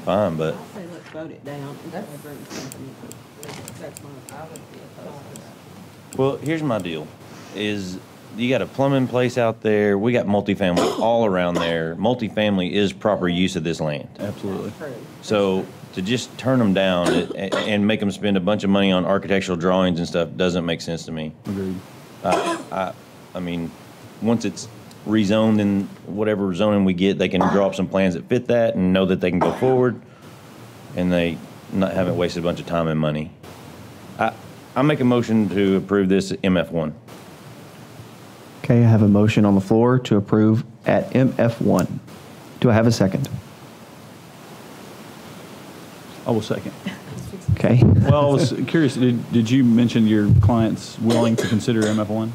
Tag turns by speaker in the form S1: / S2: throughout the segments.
S1: fine, but
S2: I say let's vote it down until I bring something. That's my, I would be opposed to that.
S1: Well, here's my deal: is you got a plumbing place out there. We got multifamily all around there. Multifamily is proper use of this land.
S3: Absolutely.
S2: True.
S1: So to just turn them down and, and make them spend a bunch of money on architectural drawings and stuff doesn't make sense to me.
S3: Agreed.
S1: I mean, once it's rezoned in whatever zoning we get, they can draw up some plans that fit that and know that they can go forward, and they not haven't wasted a bunch of time and money. I I make a motion to approve this MF one.
S4: Okay, I have a motion on the floor to approve at MF1. Do I have a second?
S3: I will second.
S4: Okay.
S3: Well, I was curious, did, did you mention your client's willing to consider MF1?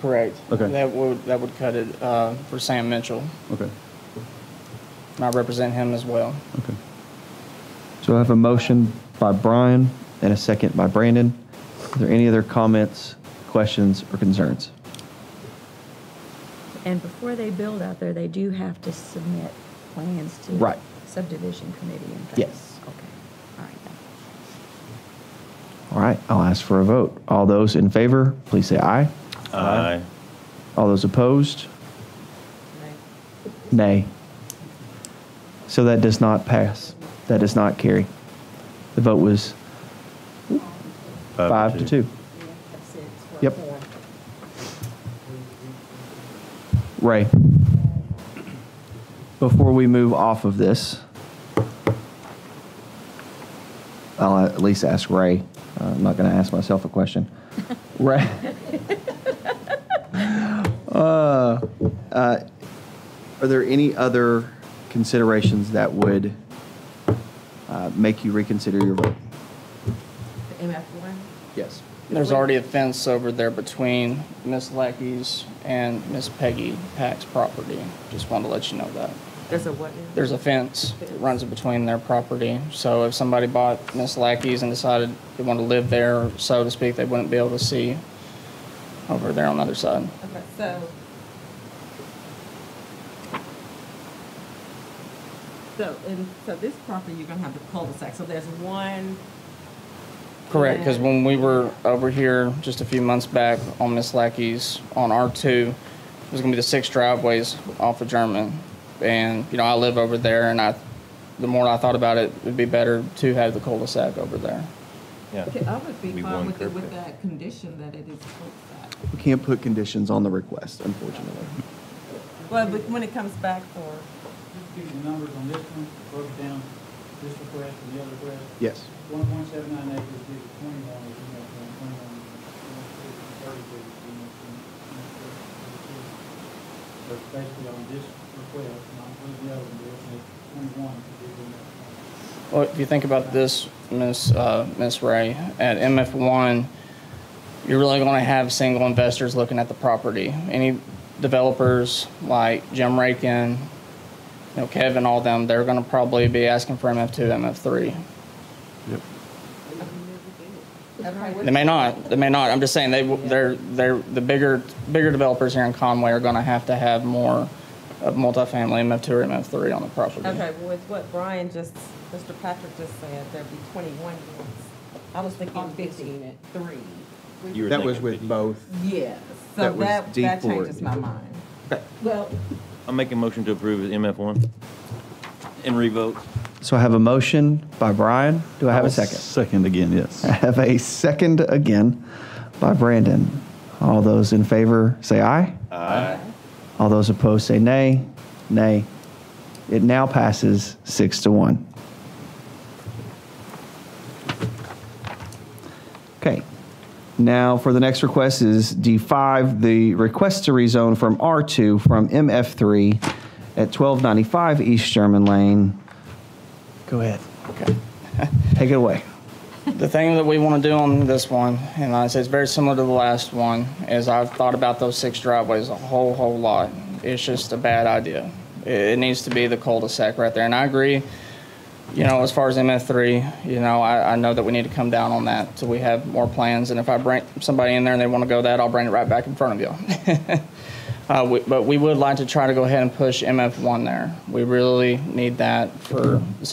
S5: Correct.
S3: Okay.
S5: That would, that would cut it uh, for Sam Mitchell.
S3: Okay,
S5: And I represent him as well.
S3: okay.
S4: So I have a motion by Brian and a second by Brandon. Are there any other comments, questions, or concerns?
S6: And before they build out there, they do have to submit plans to
S4: Right.
S6: subdivision committee and things.
S4: Yes.
S6: Okay, all right then.
S4: All right, I'll ask for a vote. All those in favor, please say aye.
S1: Aye.
S4: All those opposed, nay. So that does not pass. That does not carry. The vote was five to two.
S2: Yeah, that's it. It's worth
S4: Yep.
S2: more.
S4: Ray, before we move off of this, I'll at least ask Ray. Uh, I'm not going to ask myself a question. Ray, uh, uh, are there any other considerations that would uh, make you reconsider your vote?
S7: The MF one?
S4: Yes.
S5: There's already a fence over there between Miss Lackey's and Miss Peggy Pack's property. Just wanted to let you know that.
S7: There's a what now?
S5: There's a fence that runs between their property. So if somebody bought Miss Lackey's and decided they want to live there, so to speak, they wouldn't be able to see over there on the other side.
S7: Okay, so, so, and, so this property, you're gonna have the cul-de-sac, so there's one,
S5: Correct, because
S7: Yeah.
S5: when we were over here just a few months back on Miss Lackey's on R2, there's gonna be the six driveways off of German. And, you know, I live over there and I, the more I thought about it, it'd be better to have the cul-de-sac over there.
S1: Yeah.
S7: okay, I would be
S1: Be
S7: fine
S1: one
S7: with it,
S1: curb
S7: with
S1: cut.
S7: that condition that it is cul-de-sac.
S4: We can't put conditions on the request, unfortunately.
S7: Well, but when it comes back for,
S8: Just give you the numbers on this one, broke down, this request and the other request.
S4: Yes.
S8: One point seven nine acres gives you twenty-one, if you know, twenty-one, thirty, if you know, 21. So basically on this request, not including the other one, there's only twenty-one to give you that.
S5: Well, if you think about this, Miss uh, Miss Ray, at MF one, you're really going to have single investors looking at the property. Any developers like Jim Rakin, you know Kevin, all them, they're going to probably be asking for MF two, MF three. They may not. They may not. I'm just saying they w- they're they're the bigger bigger developers here in Conway are going to have to have more of multifamily MF two or MF three on the property.
S7: okay, well, it's what Brian just, Mr. Patrick just said, there'd be twenty-one units. I was thinking
S2: On this
S7: fifteen
S2: unit.
S7: three.
S1: You were
S9: That was
S1: thinking
S9: with
S1: 50.
S9: both.
S7: Yes, so
S9: That was
S7: that,
S9: D
S7: that
S9: four.
S7: changes my mind.
S2: Well,
S1: I'm making a motion to approve MF one and revote.
S4: So I have a motion by Brian. Do I have a
S3: I'll
S4: second?
S3: Second again, yes.
S4: I have a second again by Brandon. All those in favor say aye. Aye. All those opposed say nay. Nay. It now passes six to one. Okay. Now for the next request is D5, the request to rezone from R2 from MF3 at 1295 East Sherman Lane. Go ahead.
S5: Okay.
S4: Take it away.
S5: The thing that we want to do on this one, and I say it's very similar to the last one, is I've thought about those six driveways a whole, whole lot. It's just a bad idea. It, it needs to be the cul-de-sac right there. And I agree, you know, as far as MF3, you know, I, I know that we need to come down on that till we have more plans. And if I bring somebody in there and they want to go that, I'll bring it right back in front of you. Uh, we, but we would like to try to go ahead and push MF1 there. We really need that for